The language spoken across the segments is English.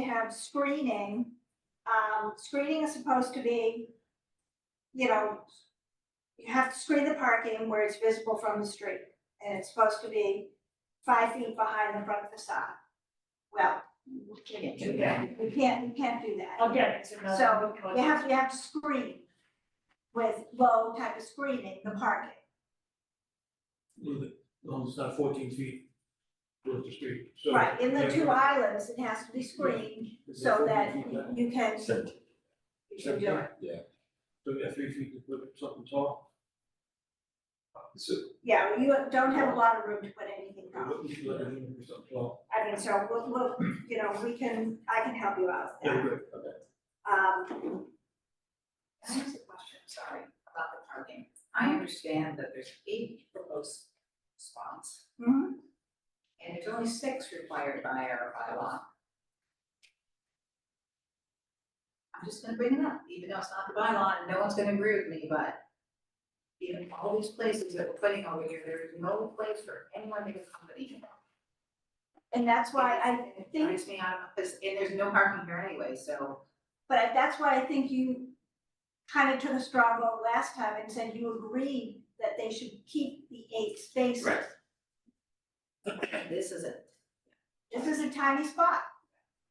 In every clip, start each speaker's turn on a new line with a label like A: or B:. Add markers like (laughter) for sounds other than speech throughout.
A: have screening, um, screening is supposed to be, you know, you have to screen the parking where it's visible from the street, and it's supposed to be five feet behind the front facade. Well, we can't do that, we can't, we can't do that.
B: Again, it's another.
A: So
B: one.
A: you have, you have to screen with low type of screening, the parking.
C: with it, um, it's not fourteen feet with the street, so.
A: Right, in the
C: Yeah,
A: two
C: yeah.
A: islands, it has to be screened
C: Is
A: so
C: it
A: that
C: 14 feet back?
A: you can, you can do it.
C: So we got three feet to put something tall,
D: So,
A: Yeah, you don't have a lot of room to put anything
C: or
A: down.
C: what you let them in for something tall.
A: I mean, so we'll, we'll, you know, we can, I can help you out with that.
C: Yeah, great.
A: Um,
E: Can I ask a question, sorry, about the parking? I understand that there's eight proposed spots.
A: Mhm.
E: And there's only six required by our bylaw. I'm just gonna bring it up, even though it's not the bylaw, and no one's gonna agree with me, but even all these places that we're putting over here, there is no place for anyone to accommodate.
A: and that's why I
E: It drives me out of, because, and there's no parking here anyway, so.
A: But that's why I think you kind of took a straw vote last time and said you agreed that they should keep the eight spaces.
E: Right. This is it.
A: This is a tiny spot,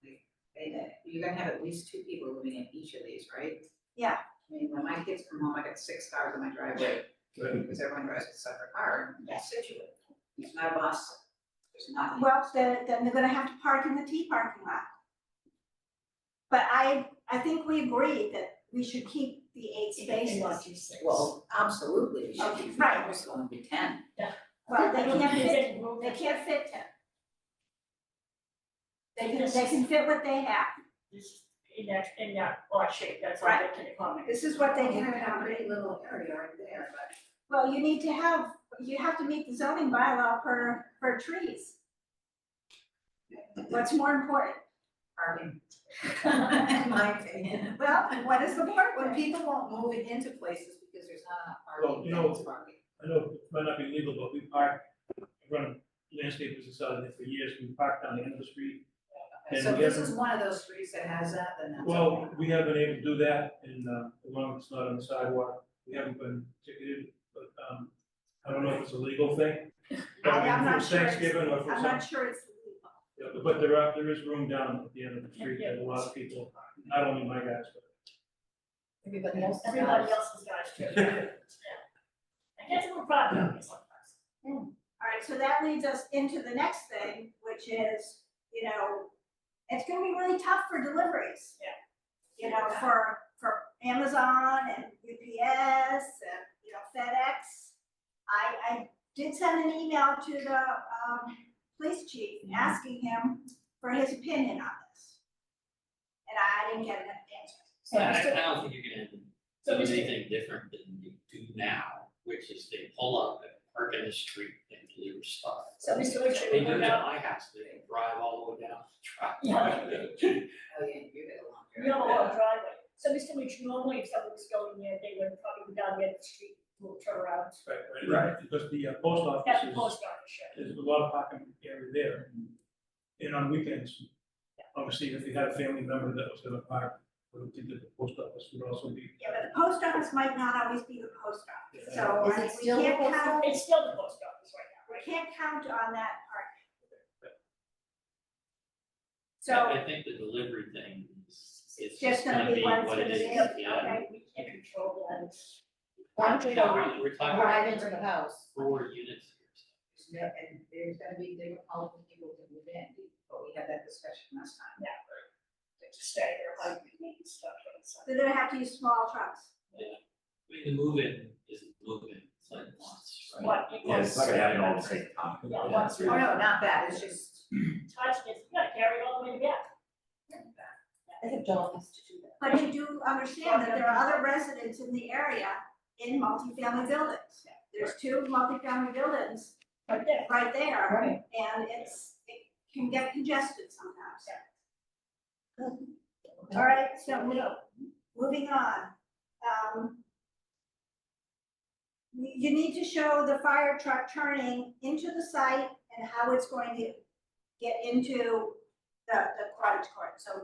E: And uh, you're gonna have at least two people living in each of these, right?
A: Yeah.
E: I mean, when my kids come home, I got six cars in my driveway, because everyone drives a separate car, and that's Situate. There's not a bus, there's nothing.
A: well, then, then they're gonna have to park in the T parking lot. But I, I think we agreed that we should keep the eight spaces.
E: Well, absolutely, we should be,
A: Right.
E: it's gonna be ten.
A: Well, they can't fit,
B: They
A: they can't fit ten. They can, they can fit what they have,
B: This- In that, in that odd shape, that's why they can accommodate.
A: this is what they can
E: have a
A: accommodate.
E: pretty little area right there, but.
A: Well, you need to have, you have to meet the zoning bylaw for, for trees. What's more important?
E: Parking. (laughs) In my opinion.
A: Well, what is the part
E: When
A: when people,
E: people won't move it into places because there's not enough parking,
C: Well, you know-
E: then it's parking.
C: I know it might not be legal, but we park, run landscape business out of there for years, we parked on the end of the street. And
E: So
C: we
E: this
C: haven't-
E: is one of those streets that has that, then that's.
C: Well,
E: okay.
C: we haven't been able to do that, and, uh, as long as it's not on the sidewalk, we haven't been ticketed, but, um, I don't know if it's a legal thing. but
A: I- I'm not
C: for
A: sure it's-
C: Thanksgiving or for
A: I'm
C: something.
A: not sure it's legal.
C: Yeah, but- but there are, there is room down at the end of the street that a lot of people, not only my guys,
F: Everybody else.
B: Everybody else's guys (laughs) too.
C: but.
B: I guess it's a problem, it's like that.
A: All right, so that leads us into the next thing, which is, you know, it's gonna be really tough for deliveries.
B: Yeah.
A: You know, for, for Amazon and UPS and, you know, FedEx. I, I did send an email to the, um, police chief asking him for his opinion on this. And I didn't get an answer.
B: So
F: I,
B: Mr.
F: I don't think you can
B: So
F: do
B: Mr.
F: anything different than you do now, which is they pull up and park in the street and deliver stuff.
B: So Mr. Richard,
F: They
B: we
F: do it
B: go
F: at
B: down,
F: my house, they drive all the way down the
B: Yeah.
F: drive.
E: Oh, yeah, you get along.
B: you have a long driveway. So Mr. Rich, normally if someone was going there, they would probably go down the end of the street, will turn around.
C: Right, right, because the uh, post
B: That's the
C: office
B: post office,
C: is,
B: sure.
C: there's a lot of parking area there. And on weekends, obviously, if you had a family member that was gonna park, we would think that the post office would also be.
A: Yeah, but the post office might not always be the post office, so
F: Is
A: I mean,
F: it
A: we
F: still the
A: can't
F: post
A: count,
B: It's still the post office right now.
A: we can't count on that part. So,
F: I I think the delivery thing is, it's
A: Just
F: just
A: gonna
F: gonna
A: be
F: be
A: one's
F: what it
A: gonna
F: is,
A: be
F: yeah.
A: up,
B: Okay, we can't control that.
F: No, Why don't we, are talking about
E: into the house.
F: four units here, so.
E: And there's gonna be difficult for people to move in, but we had that discussion last time.
B: Yeah. They just stay there, like, making stuff on the side.
A: they're gonna have to use small trucks.
F: I mean, the move-in isn't move-in, it's like lots, right?
B: But.
G: Yeah, it's like adding all the same time.
B: Yeah, once
E: Oh,
B: more.
E: no, not that, it's just.
B: Touch it, you gotta carry it all the way back.
F: I
E: think John has to do that.
A: But you do understand that there are other residents in the area in multifamily buildings. There's two multifamily buildings
B: Right there.
A: right there,
E: Right.
A: and it's, it can get congested sometimes. All right, so we, moving on. Um, You you need to show the fire truck turning into the site and how it's going to get into the, the cottage court. So